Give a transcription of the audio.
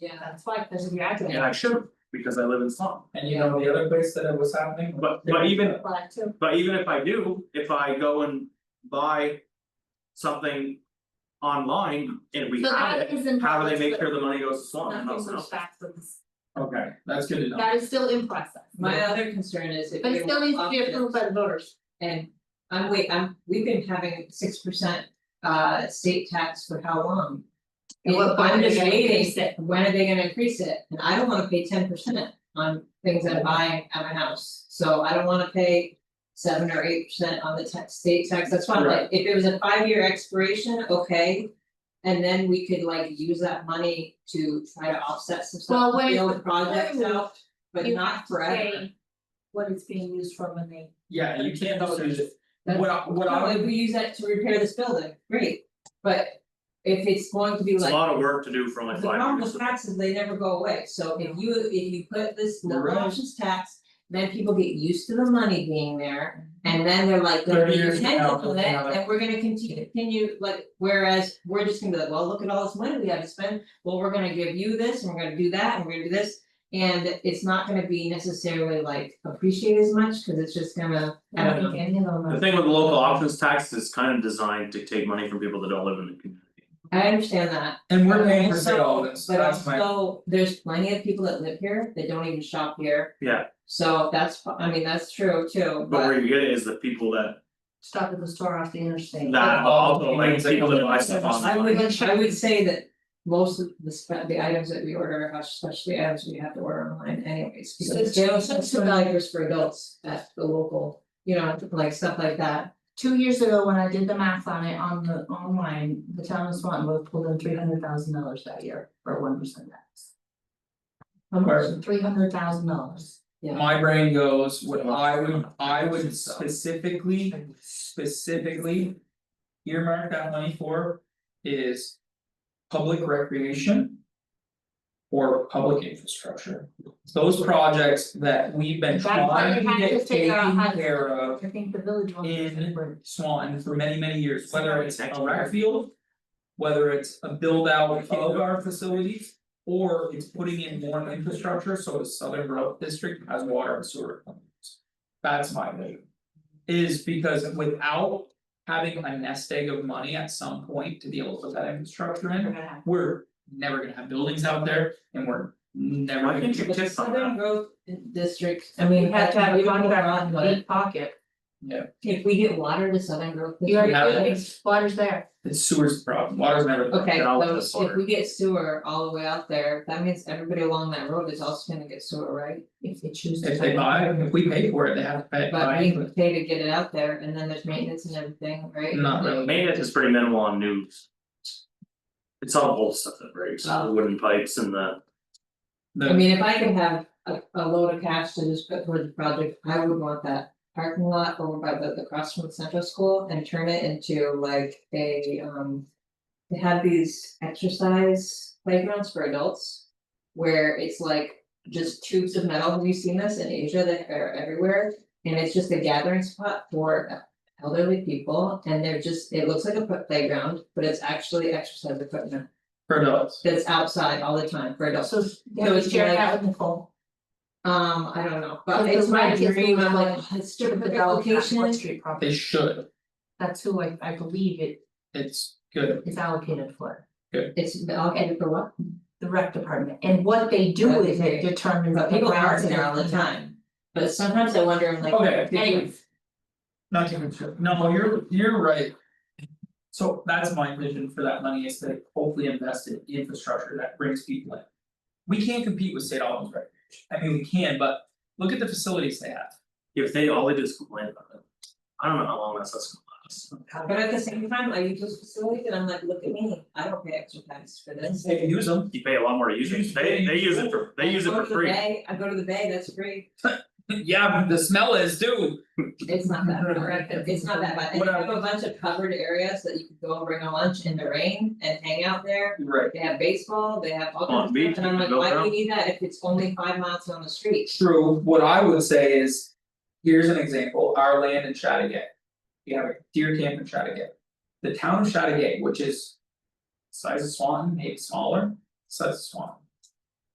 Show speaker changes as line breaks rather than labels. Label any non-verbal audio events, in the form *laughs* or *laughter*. Yeah, that's why, because we graduated.
and I should, because I live in slum.
And you know the other place that it was happening?
But but even
Black too.
But even if I do, if I go and buy something online and we
So
have
that
it,
is in
how do they
progress,
make
but
sure the money goes to Swan and
Nothing
not
was
Sound?
back from this.
Okay, that's good to know.
That is still in process.
My other concern is if
But it
they
still
were
needs to be approved by the voters.
and I'm wait, I'm, we've been having six percent uh state tax for how long?
And what
And
point
I'm
are they
just
gonna
waiting,
increase it?
when are they gonna increase it? And I don't wanna pay ten percent on things I'm buying at my house, so I don't wanna pay. Seven or eight percent on the tax, state tax, that's why I'm like, if it was a five-year expiration, okay. And then we could like use that money to try to offset some
Well,
stuff,
when
build projects
approved,
out, but
You
not
have to
forever.
say What it's being used for when they.
Yeah, you can't just use it.
That's-
What I what
No,
I
if we use that to repair this building, great, but if it's going to be
It's a
like,
lot of work to do for
the
only five
problem with
years.
taxes, they never go away, so if you, if you put this no
Right.
options tax. Then people get used to the money being there, and then they're like, they're
Thirty years from now,
content
they'll
with it,
have it.
and we're gonna continue, continue, like, whereas. We're just gonna be like, well, look at all this money we have to spend, well, we're gonna give you this, and we're gonna do that, and we're gonna do this. And it's not gonna be necessarily like appreciated as much, cause it's just gonna, I don't know.
think any of them
The
are.
thing with the local options tax is kind of designed to take money from people that don't live in the community.
I understand that.
and we're
but
paying for
also-
shit all this, that's
But
my,
also, there's plenty of people that live here that don't even shop here.
Yeah.
So that's, I mean, that's true too,
But
but
where you get it is the people that
Stop at the store off the interstate.
that
all
also
the
like
things that
people
go
that buy
into
stuff
the-
I
online.
would, I would say that. Most of the spe- the items that we order, especially items we have to order online anyways, because they don't have some diapers for adults at the local. You know, like stuff like that,
Two years ago, when I did the math on it on the online, the town of Swanton was pulled in three hundred thousand dollars that year for one percent tax. How
Where?
much? Three hundred thousand dollars.
my brain goes, what I would, I would specifically, specifically. Earmark that money for is public recreation. Or public infrastructure, those projects that we've been
That's why
trying
we
to
have to
get
figure out
taken
how to-
care of.
I think the village will.
in Swan for many, many years, whether it's a
Exactly.
rec field. Whether it's a build out of our facilities, or it's putting in more infrastructure, so the Southern Grove District has water and sewer. companies. That's my way. Is because without having a nest egg of money at some point to be able to put that infrastructure in, we're never gonna have buildings out there and we're never
Why
gonna.
can't you
but the
tip on
Southern
that?
Growth District, I
And we
mean,
have to have a
we don't
contract
want,
on
but
deep pocket.
if we get water to Southern Growth.
You already
have
did
it.
it, water's there.
The sewer's the problem, water's never. the
Okay,
Get out with this
so if
water.
we get sewer all the way out there, that means everybody along that road is also gonna get sewer, right?
If they choose to.
If they buy, it, if we pay for it, they have to pay.
But
buy
we
it, but-
pay to get it out there and then there's maintenance and everything, right?
Not really.
Maintenance is pretty minimal on news. It's all the whole stuff that breaks, the
Oh.
wooden pipes and the,
I
The,
mean, if I could have a a load of cash to just put towards the project, I would want that parking lot over by the the cross from the central school and turn it into like a um. They have these exercise playgrounds for adults where it's like just tubes of metal. Have you seen this in Asia? They are everywhere. And it's just a gathering spot for elderly people and they're just, it looks like a playground, but it's actually exercise equipment
for adults,
that's outside all the time for adults.
So they would share that with Nicole.
Um, I don't know,
But
but
the
it's my
rent is
dream,
going
I'm like,
up.
"Oh, it's stupid
Typical
allocation,
West Street
they
property.
should,
That's who I I believe it
it's good,
is allocated for,
it's allocated for what,
the rec department, and what they do with it
Okay.
determines the
but people are
grounds
in
and
there all the
everything.
time. But sometimes I wonder, I'm like.
okay,
Anyways,
not to confuse, no, you're, you're right. So that's my vision for that money is to hopefully invest in infrastructure that brings people in. We can't compete with state Allen's recreation, I mean, we can, but look at the facilities they have.
if they, all they do is complain about it. I don't know how long that's gonna last.
But at the same time, I use those facilities and I'm like, look at me, I don't pay extra tax for this.
They can use them.
You pay a lot more to use it, they they use it for, they use it for free.
I go to the bay, I go to the bay, that's free,
*laughs* Yeah, the smell is dude,
it's not that bad, it's not that bad, and they have a bunch of covered areas that you could go and bring a lunch in the rain and hang out there.
right,
They have baseball, they have all
Long
kinds of
Beach,
stuff, and
you can
I'm like,
go
why do
down.
we need that if it's only five miles on the street?
True, what I would say is, here's an example, our land in Chattagat. We have a deer camp in Chattagat. The town of Chattagat, which is. Size of Swanton, maybe smaller, size of Swanton.